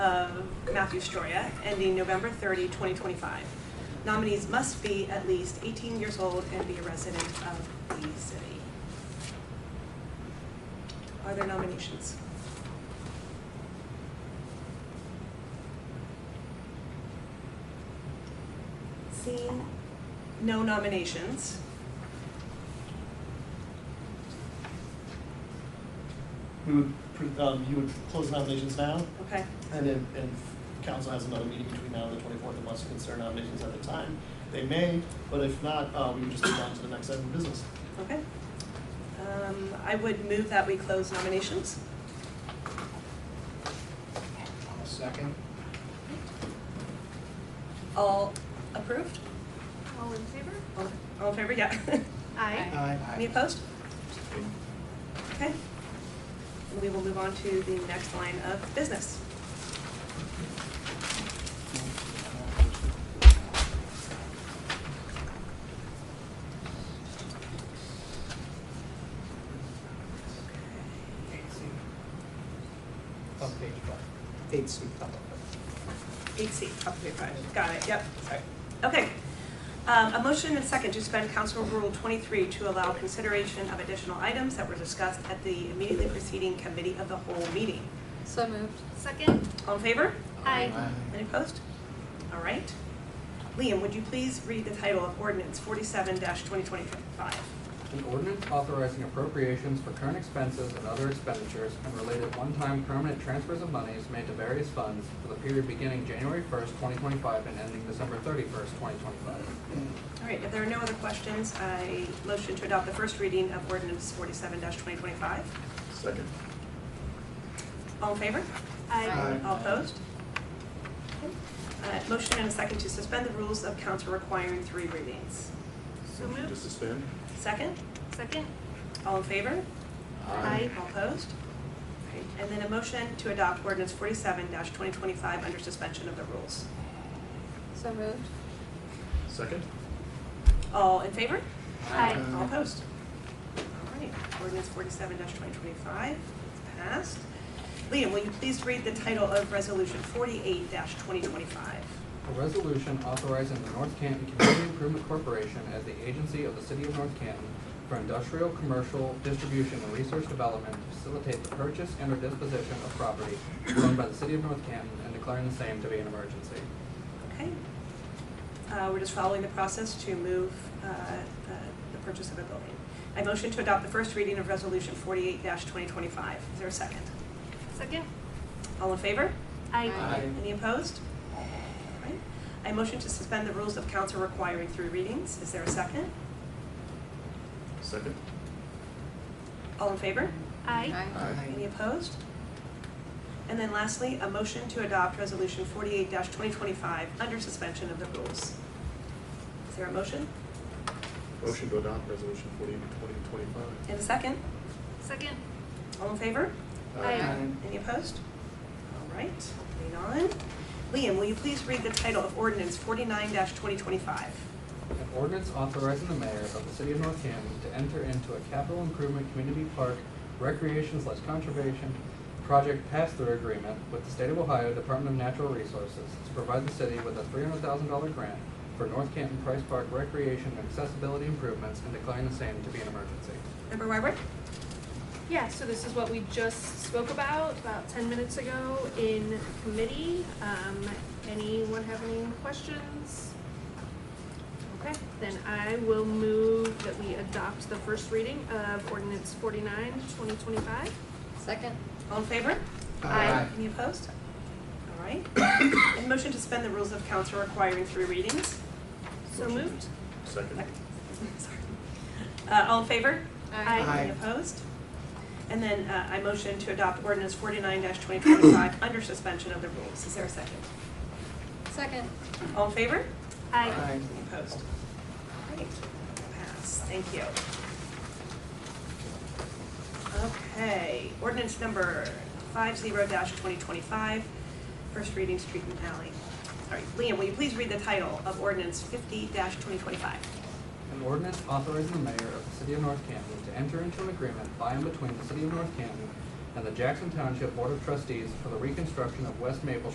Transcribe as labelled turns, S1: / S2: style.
S1: of Matthew Stroya, ending November 30, 2025. Nominees must be at least 18 years old and be a resident of the city. Are there nominations? Seeing no nominations,
S2: We would, pre- um, you would close nominations now,
S1: okay,
S2: and then, and council has another meeting between now and the twenty-fourth, and wants to consider nominations at the time. They may, but if not, uh, we would just move on to the next item of business.
S1: okay. Um, I would move that we close nominations.
S3: I'll second.
S1: All approved?
S4: All in favor?
S1: All all in favor, yeah.
S4: Aye.
S1: Any
S3: Aye.
S1: opposed? Okay. And we will move on to the next line of business.
S3: Eight C. Top page five. Eight C, top of
S1: Eight C, top of page five. Got it, yep, sorry. Okay. Um, A motion and second to suspend Council Rule 23 to allow consideration of additional items that were discussed at the immediately preceding committee of the whole meeting.
S5: So moved.
S4: Second?
S1: All in favor?
S4: Aye.
S1: Any opposed? All right. Liam, would you please read the title of ordinance 47-2025?
S6: An ordinance authorizing appropriations for current expenses and other expenditures and related one-time permanent transfers of monies made to various funds for the period beginning January first, twenty twenty-five and ending December thirty-first, twenty twenty-five.
S1: All right, if there are no other questions, I motion to adopt the first reading of ordinance forty-seven twenty twenty-five.
S2: Second.
S1: All in favor?
S4: Aye.
S1: All opposed? Okay. Uh, motion and a second to suspend the rules of council requiring three readings.
S4: So moved.
S7: Just suspend?
S1: Second,
S4: Second?
S1: all in favor?
S4: Aye.
S1: All opposed? All right, And then a motion to adopt ordinance forty-seven twenty twenty-five under suspension of the rules.
S5: So moved.
S7: Second?
S1: All in favor?
S4: Aye.
S1: All opposed? All right, ordinance forty-seven twenty twenty-five is passed. Liam, will you please read the title of resolution forty-eight twenty twenty-five?
S6: A resolution authorizing the North Canton Community Improvement Corporation as the agency of the city of North Canton for industrial, commercial, distribution, and research development to facilitate the purchase and or disposition of property owned by the city of North Canton and declaring the same to be an emergency.
S1: Okay. Uh, we're just following the process to move, uh, uh, the purchase of a building. I motion to adopt the first reading of resolution forty-eight twenty twenty-five. Is there a second?
S4: Second?
S1: All in favor?
S4: Aye.
S5: Aye.
S1: Any opposed? All right. I motion to suspend the rules of council requiring three readings. Is there a second?
S7: Second?
S1: All in favor?
S4: Aye.
S1: Any opposed? And then lastly, a motion to adopt Resolution forty-eight twenty twenty-five under suspension of the rules. Is there a motion
S7: Motion to adopt resolution forty, twenty twenty-five.
S1: and a second?
S4: Second?
S1: All in favor?
S4: Aye.
S1: Any opposed? All right, moving on. Liam, will you please read the title of ordinance forty-nine twenty twenty-five?
S6: An ordinance authorizing the mayor of the city of North Canton to enter into a capital improvement community park recreation slash conservation project pass-through agreement with the state of Ohio Department of Natural Resources to provide the city with a three hundred thousand dollar grant for North Canton Price Park recreation and accessibility improvements and declaring the same to be an emergency.
S1: Member Wyrick?
S4: Yeah, so this is what we just spoke about, about ten minutes ago in committee. Um, anyone have any questions? Okay, then I will move that we adopt the first reading of ordinance forty-nine, twenty twenty-five.
S5: Second.
S1: All in favor?
S4: Aye.
S1: Any opposed? All right. And motion to suspend the rules of council requiring three readings?
S4: So moved.
S7: Second?
S1: Sorry. Uh, all in favor?
S4: Aye.
S1: Any opposed? And then, uh, I motion to adopt ordinance forty-nine twenty twenty-five under suspension of the rules. Is there a second?
S5: Second.
S1: All in favor?
S4: Aye.
S1: Any opposed? Great, pass, thank you. Okay, ordinance number five zero dash twenty twenty-five, first reading, street and alley. All right, Liam, will you please read the title of ordinance fifty dash twenty twenty-five?
S6: An ordinance authorizing the mayor of the city of North Canton to enter into an agreement by and between the city of North Canton and the Jackson Township Board of Trustees for the reconstruction of West Maple